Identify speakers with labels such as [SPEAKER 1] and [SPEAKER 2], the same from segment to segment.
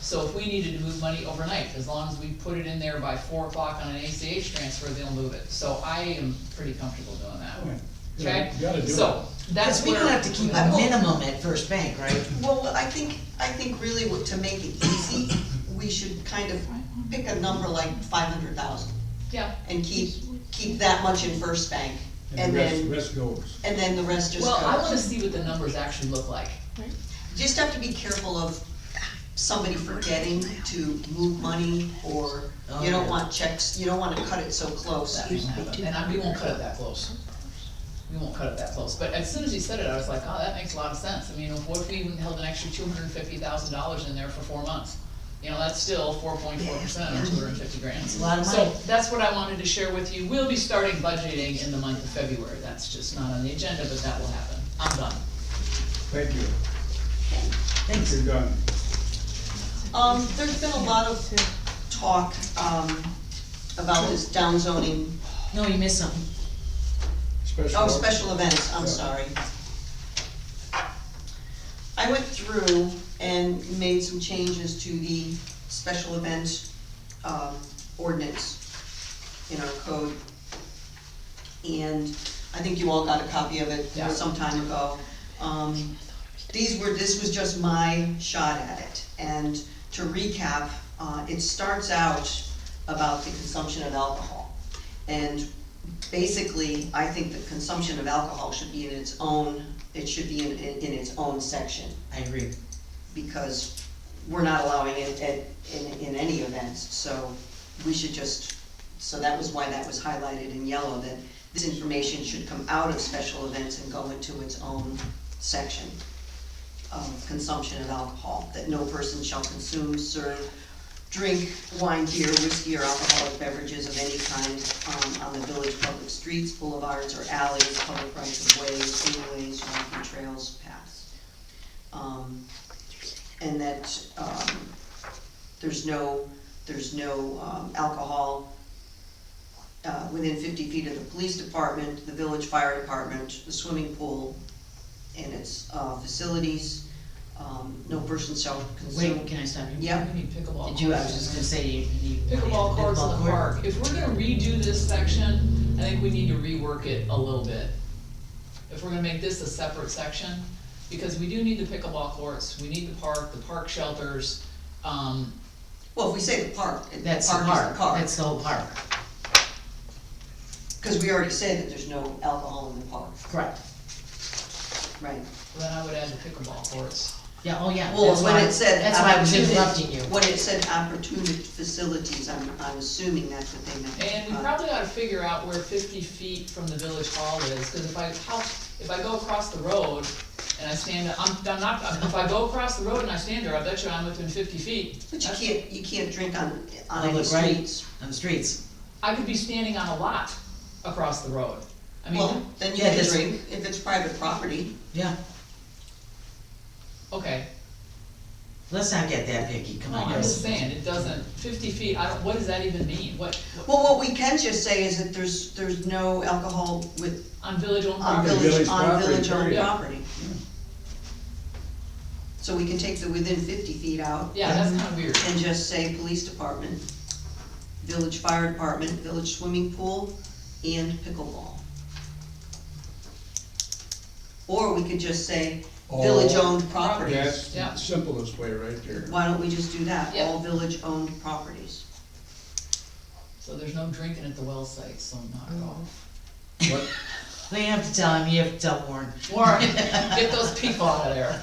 [SPEAKER 1] So if we needed to move money overnight, as long as we put it in there by four o'clock on an ACH transfer, they'll move it. So I am pretty comfortable doing that. Okay?
[SPEAKER 2] You gotta do
[SPEAKER 1] So, that's
[SPEAKER 3] Because we
[SPEAKER 1] where. Oh,
[SPEAKER 3] don't have to keep
[SPEAKER 4] I
[SPEAKER 3] a
[SPEAKER 4] will-
[SPEAKER 3] minimum at First Bank, right?
[SPEAKER 4] Well, I think, I think really what- to make it easy, we should kind of pick a number like five hundred thousand
[SPEAKER 1] Yeah.
[SPEAKER 4] and keep, keep that much in First Bank. And
[SPEAKER 2] the rest,
[SPEAKER 4] then,
[SPEAKER 2] rest goes.
[SPEAKER 4] and then the rest just
[SPEAKER 1] Well, I wanna
[SPEAKER 4] goes.
[SPEAKER 1] see what the numbers actually look like.
[SPEAKER 4] Just have to be careful of somebody forgetting to move money or you
[SPEAKER 3] Oh, yeah.
[SPEAKER 4] don't want checks, you don't wanna cut it so close.
[SPEAKER 1] That won't happen. And I- we won't cut it that close. We won't cut it that close, but as soon as you said it, I was like, oh, that makes a lot of sense, I mean, what if we even held an extra two hundred and fifty thousand dollars in there for four months? You know, that's still four point four percent on two hundred and fifty grand.
[SPEAKER 3] It's a lot of
[SPEAKER 1] So
[SPEAKER 3] money.
[SPEAKER 1] that's what I wanted to share with you, we'll be starting budgeting in the month of February, that's just not on the agenda, but that will happen, I'm done.
[SPEAKER 2] Thank you.
[SPEAKER 3] Thanks.
[SPEAKER 2] You're done.
[SPEAKER 4] Um, there's been a lot of talk, um, about this downzoning,
[SPEAKER 3] No, you missed something.
[SPEAKER 2] Special.
[SPEAKER 4] oh, special events, I'm
[SPEAKER 2] Yeah.
[SPEAKER 4] sorry. I went through and made some changes to the special events, um, ordinance in our code. And I think you all got a copy of it
[SPEAKER 1] Yeah.
[SPEAKER 4] some time ago. Um, these were, this was just my shot at it. And to recap, uh, it starts out about the consumption of alcohol. And basically, I think the consumption of alcohol should be in its own, it should be in, in in its own section
[SPEAKER 3] I agree.
[SPEAKER 4] because we're not allowing it at, in, in any events, so we should just, so that was why that was highlighted in yellow, that this information should come out of special events and go into its own section of consumption of alcohol, that no person shall consume, serve, drink wine, beer, whiskey, or alcoholic beverages of any kind um, on the village public streets, boulevards, or alleys, public rights of ways, freeways, walking trails, paths. Um, and that, um, there's no, there's no, um, alcohol, uh, within fifty feet of the police department, the village fire department, the swimming pool, and its, uh, facilities, um, no person shall consume.
[SPEAKER 3] Wait, can I stop you?
[SPEAKER 4] Yeah.
[SPEAKER 1] We need pickleball.
[SPEAKER 3] Did you, I was
[SPEAKER 1] courts.
[SPEAKER 3] just gonna say, you need.
[SPEAKER 1] Pickleball courts in the
[SPEAKER 3] court.
[SPEAKER 1] park, if we're gonna redo this section, I think we need to rework it a little bit. If we're gonna make this a separate section, because we do need the pickleball courts, we need the park, the park shelters, um,
[SPEAKER 4] Well, if we say the park, the park
[SPEAKER 3] That's
[SPEAKER 4] is
[SPEAKER 3] the
[SPEAKER 4] the
[SPEAKER 3] park,
[SPEAKER 4] park,
[SPEAKER 3] that's the whole park.
[SPEAKER 4] cause we already said that there's no alcohol in the park,
[SPEAKER 3] Correct.
[SPEAKER 4] right?
[SPEAKER 1] then I would add the pickleball courts.
[SPEAKER 3] Yeah, oh, yeah.
[SPEAKER 4] Well,
[SPEAKER 3] that's
[SPEAKER 4] when
[SPEAKER 3] why-
[SPEAKER 4] it said.
[SPEAKER 3] That's why I was
[SPEAKER 4] opportuni-
[SPEAKER 3] interrupting you.
[SPEAKER 4] When it said opportunity facilities, I'm, I'm assuming that's what they meant.
[SPEAKER 1] And we
[SPEAKER 4] Uh,
[SPEAKER 1] probably ought to figure out where fifty feet from the village hall is, cause if I, how, if I go across the road and I stand, I'm, I'm not, if I go across the road and I stand there, I bet you I'm within fifty feet.
[SPEAKER 4] But you can't, you can't drink on, on any
[SPEAKER 3] Public right
[SPEAKER 4] streets.
[SPEAKER 3] On the streets.
[SPEAKER 1] I could be standing on a lot across the road. I
[SPEAKER 4] Well,
[SPEAKER 1] mean,
[SPEAKER 4] then you
[SPEAKER 3] Yeah,
[SPEAKER 4] can
[SPEAKER 3] that's-
[SPEAKER 4] drink if it's private property.
[SPEAKER 3] Yeah,
[SPEAKER 1] okay,
[SPEAKER 3] let's not get that picky, come
[SPEAKER 1] no,
[SPEAKER 3] on.
[SPEAKER 1] I'm
[SPEAKER 3] guys.
[SPEAKER 1] just saying, it doesn't, fifty feet, I don't, what does that even mean? What,
[SPEAKER 4] Well, what we can just say is that there's, there's no alcohol with,
[SPEAKER 1] on village owned
[SPEAKER 4] on
[SPEAKER 1] property?
[SPEAKER 4] village,
[SPEAKER 2] Village
[SPEAKER 4] on
[SPEAKER 2] property,
[SPEAKER 4] village owned
[SPEAKER 2] period.
[SPEAKER 4] property. So we can take the within fifty feet out
[SPEAKER 1] Yeah, that's kinda weird.
[SPEAKER 4] and just say police department, village fire department, village swimming pool, and pickleball. Or we could just say
[SPEAKER 2] All-
[SPEAKER 4] village owned property.
[SPEAKER 2] That's
[SPEAKER 1] Yeah.
[SPEAKER 2] the simplest way right there.
[SPEAKER 4] Why don't we just do that,
[SPEAKER 1] Yeah.
[SPEAKER 4] all village-owned properties?
[SPEAKER 1] So there's no drinking at the well site, so knock it off.
[SPEAKER 2] What,
[SPEAKER 3] Well, you have to tell him, you have to tell Warren.
[SPEAKER 1] Warren,
[SPEAKER 4] Mm.
[SPEAKER 1] get those people out of there.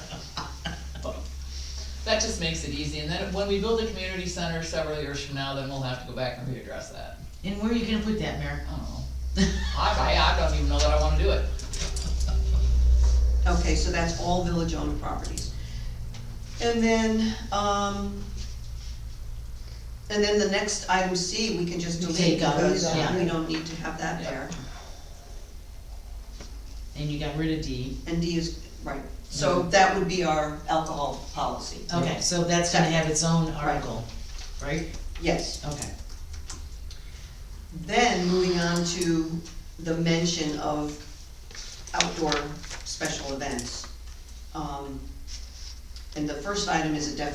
[SPEAKER 1] That just makes it easy, and then when we build a community center several years from now, then we'll have to go back and readdress that.
[SPEAKER 3] And where are you gonna put that, Mayor?
[SPEAKER 1] I don't know. I, I, I don't even know that I wanna do it.
[SPEAKER 4] Okay, so that's all village-owned properties. And then, um, and then the next item C, we can just
[SPEAKER 3] You
[SPEAKER 4] delete
[SPEAKER 3] take out,
[SPEAKER 4] because
[SPEAKER 3] yeah.
[SPEAKER 4] we don't need to have that
[SPEAKER 1] Yeah.
[SPEAKER 4] there.
[SPEAKER 3] And you got rid of D.
[SPEAKER 4] And D is, right, so that would be our alcohol policy,
[SPEAKER 3] Okay, so that's gonna have its own article, right?
[SPEAKER 4] yes.
[SPEAKER 3] Okay.
[SPEAKER 4] Then, moving on to the mention of outdoor special events. Um, And the first item is a definition